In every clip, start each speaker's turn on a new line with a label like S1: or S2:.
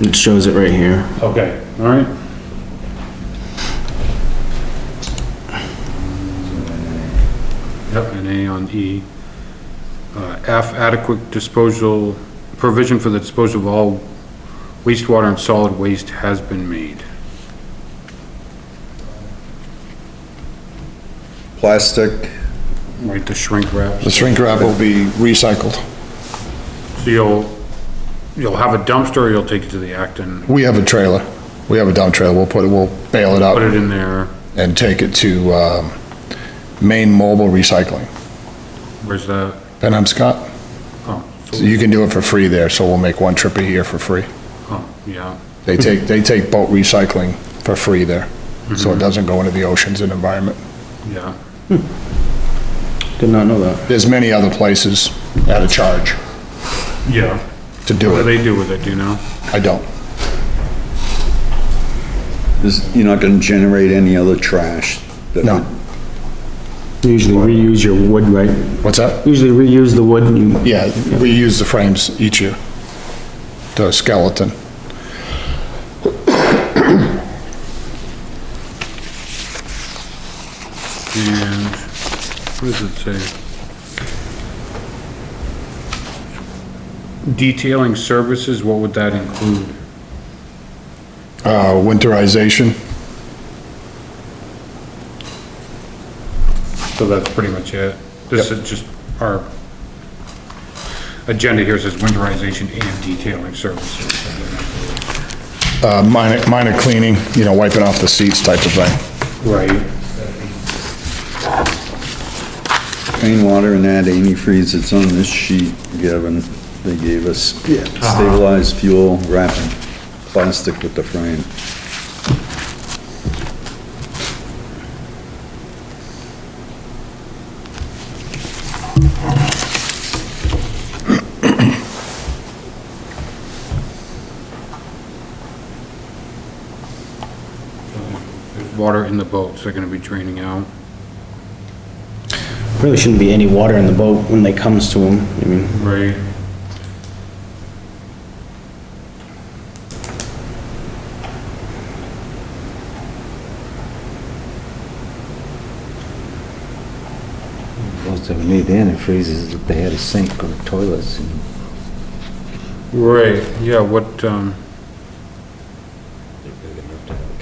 S1: it shows it right here.
S2: Okay, all right. Yep, an A on E. Uh, F, adequate disposal, provision for the disposal of all wastewater and solid waste has been made.
S3: Plastic,
S2: Right, the shrink wrap.
S4: The shrink wrap will be recycled.
S2: So you'll, you'll have a dumpster, or you'll take it to the Acton,
S4: We have a trailer. We have a dump trailer. We'll put it, we'll bail it
S2: put
S4: up
S2: it in there,
S4: and take it to, um, Maine Mobile Recycling,
S2: where's that?
S4: Penhamscot.
S2: Oh,
S4: So
S2: so-
S4: you can do it for free there, so we'll make one trip a year for free.
S2: oh, yeah,
S4: They take, they take boat recycling for free there,
S2: Mm-hmm.
S4: so it doesn't go into the oceans and environment.
S2: yeah.
S1: Did not know that.
S4: There's many other places at a charge
S2: Yeah.
S4: to do
S2: What do
S4: it.
S2: they do with it, do you know?
S4: I don't.
S3: is, you're not gonna generate any other trash? that
S4: No.
S3: would-
S1: You Usually reuse your wood, right?
S4: What's that?
S1: Usually reuse the wood and you,
S4: Yeah, we use the frames each year. The skeleton.
S2: And what does it say? Detailing services, what would that include?
S4: Uh, winterization.
S2: So that's pretty much it. This is just our agenda here says winterization and detailing services.
S4: Uh, minor, minor cleaning, you know, wiping off the seats type of thing.
S2: Right.
S3: Rainwater and that antifreeze that's on this sheet, Gavin, they gave us stabilized fuel wrapping, plastic with the frame.
S2: There's water in the boats, they're gonna be draining out.
S1: really shouldn't be any water in the boat when they comes to them. I mean,
S2: Right.
S5: Most of them need antifreezes, that they had a sink or toilets and
S2: Right, yeah, what, um,
S5: a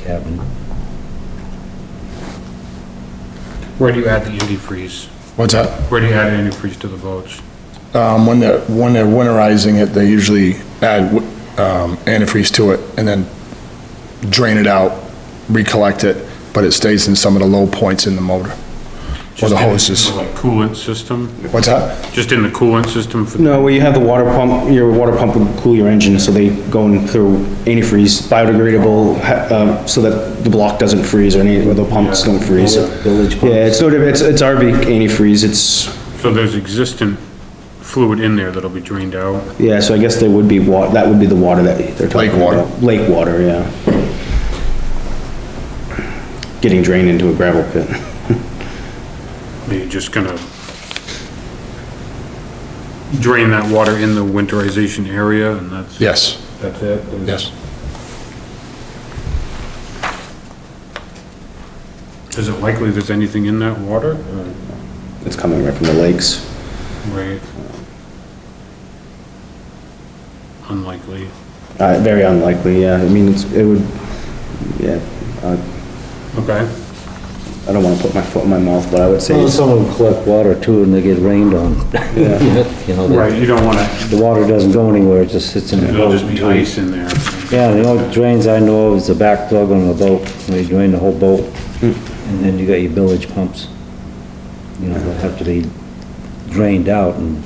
S5: cabin.
S2: where do you add the antifreeze?
S4: What's that?
S2: Where do you add antifreeze to the boats?
S4: Um, when they're, when they're winterizing it, they usually add, wi- um, antifreeze to it and then drain it out, recollect it, but it stays in some of the low points in the motor. Or the hoses.
S2: Like coolant system?
S4: What's that?
S2: Just in the coolant system for,
S1: no, where you have the water pump, your water pump would cool your engine, so they go in through antifreeze, biodegradable, ha- uh, so that the block doesn't freeze or any, or the pumps don't freeze.
S5: Village pumps.
S1: Yeah, it's sort of, it's, it's RV antifreeze, it's,
S2: so there's existent fluid in there that'll be drained out?
S1: yeah, so I guess there would be wa, that would be the water that they're talking
S4: Lake water.
S1: about. Lake water, yeah. Getting drained into a gravel pit.
S2: Are you just gonna drain that water in the winterization area and that's?
S4: Yes,
S2: That's it?
S4: yes.
S2: Is it likely there's anything in that water? or-
S1: It's coming right from the lakes.
S2: Right. Unlikely.
S1: Uh, very unlikely, yeah. I mean, it's, it would, yeah,
S2: Okay.
S1: I don't wanna put my foot in my mouth, but I would say,
S5: Well,
S1: it's-
S5: some of them collect water too and they get rained on. You know,
S2: Right,
S5: the,
S2: you don't wanna,
S5: the water doesn't go anywhere, it just sits in the
S2: it'll
S5: boat.
S2: just be ice in there.
S5: Yeah, the only drains I know of is the back plug on the boat, where you drain the whole boat. And then you got your village pumps. You know, that have to be drained out and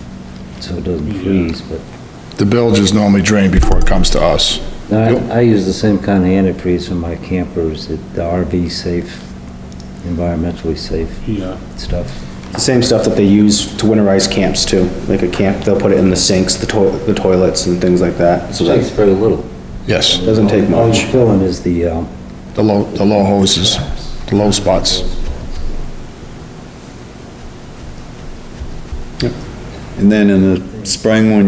S5: so it doesn't freeze, but.
S4: The bilge is normally drained before it comes to us.
S5: No, I, I use the same kind of antifreeze for my campers, the the RV safe, environmentally safe
S2: Yeah.
S5: stuff.
S1: the same stuff that they use to winterize camps too. Like a camp, they'll put it in the sinks, the toilet, the toilets and things like that, so that
S5: very little.
S4: Yes,
S1: doesn't take
S5: All
S1: much.
S5: you're filling is the, um,
S4: the low, the low hoses, the low spots.
S3: And then in the spring, when